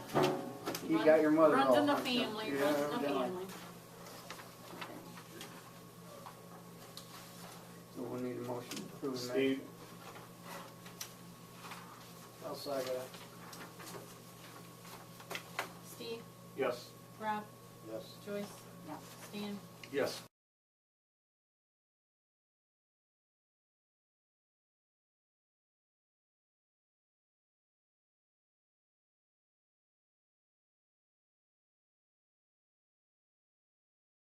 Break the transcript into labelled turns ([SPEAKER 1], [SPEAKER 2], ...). [SPEAKER 1] You got your mother
[SPEAKER 2] Runs in the
[SPEAKER 1] all fucked up.
[SPEAKER 2] family,
[SPEAKER 1] Yeah,
[SPEAKER 2] runs in the
[SPEAKER 1] evidently.
[SPEAKER 2] family.
[SPEAKER 1] So we'll need a motion to approve that.
[SPEAKER 3] Steve,
[SPEAKER 4] I'll second it.
[SPEAKER 2] Steve,
[SPEAKER 3] yes.
[SPEAKER 2] Rob,
[SPEAKER 4] Yes.
[SPEAKER 2] Joyce? Stan?
[SPEAKER 3] Yes.